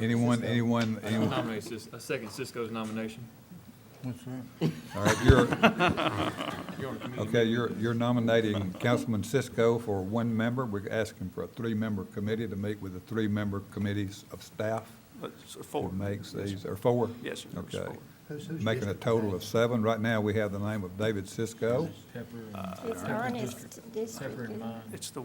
Anyone, anyone, I anyone? nominate Cis, I second Cisco's nomination. All right, you're, okay, you're, you're nominating Councilman Cisco for one member. We're asking for a three-member committee to meet with the three-member committees of staff. That's who four. Makes these, or four? Yes, sir. It's Okay. four. Who's- who's Making a district total is of seven. Right now, we have the name of David Cisco. It's Ernest District. isn't it? It's the,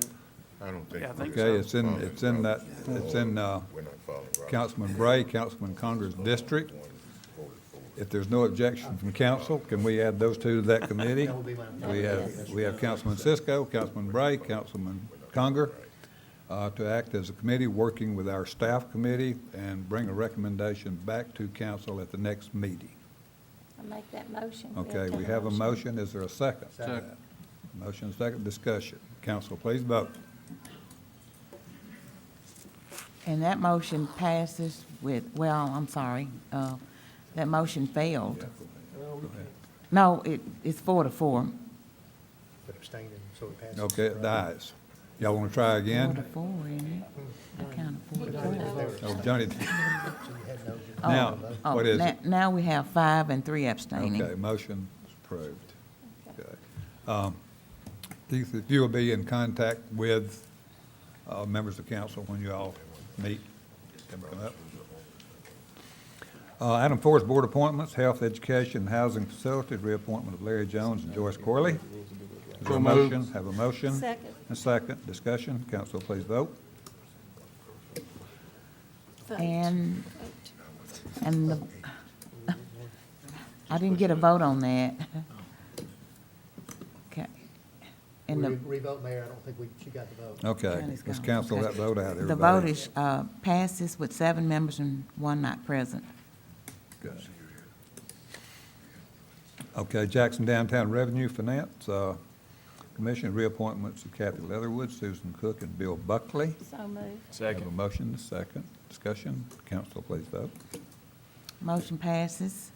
I don't think. Yeah, I think we're Okay, it's in, following it's in that, Robert's it's in, uh, rules. We're not following Robert's Councilman Bray, Councilman Conger's district. If there's no objection from council, can we add those two to that committee? That would be my- We have, we have Councilman Cisco, Councilman Bray, Councilman Conger, uh, to act as a committee, working with our staff committee, and bring a recommendation back to council at the next meeting. I make that motion. Okay, we have a motion, is there a second? Second. Motion, second, discussion. Council, please vote. And that motion passes with, well, I'm sorry, uh, that motion failed. No, it, it's four to four. abstaining, so it passes. Okay, it dies. Y'all want to try Four to again? four, isn't it? I counted four to four. Oh, Johnny, So you had no- now, Oh, what is na- it? Now we have five and three abstaining. Okay, motion is approved. Okay. Um, Keith, if you will be in contact with uh, members of council when you all meet, come up. Uh, Item four is board appointments, health, education, housing facilities, reappointment of Larry Jones and Joyce Corley. Is there a motion? Have a motion? Second. A second, discussion, council please vote. And, and the, I didn't get a vote on that. Okay. We And the re- Revote, Mayor, I don't think we, she got the vote. Okay, Johnny's let's gone. cancel Okay. that vote out, everybody. The vote is, uh, passes with seven members and one not present. Good. Okay, Jackson Downtown Revenue Finance, uh, Commission reappointments of Kathy Leatherwood, Susan Cook, and Bill Buckley. So moved. Have a motion, and a second. Discussion. Council, please vote. Motion passes.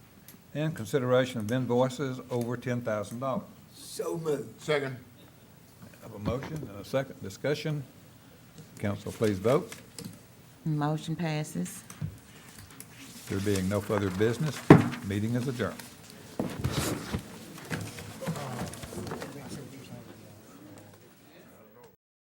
And consideration of invoices over ten thousand dollars. Second. Have a motion and a second. Discussion. Council, please vote. Motion passes. There being no further business, meeting is adjourned.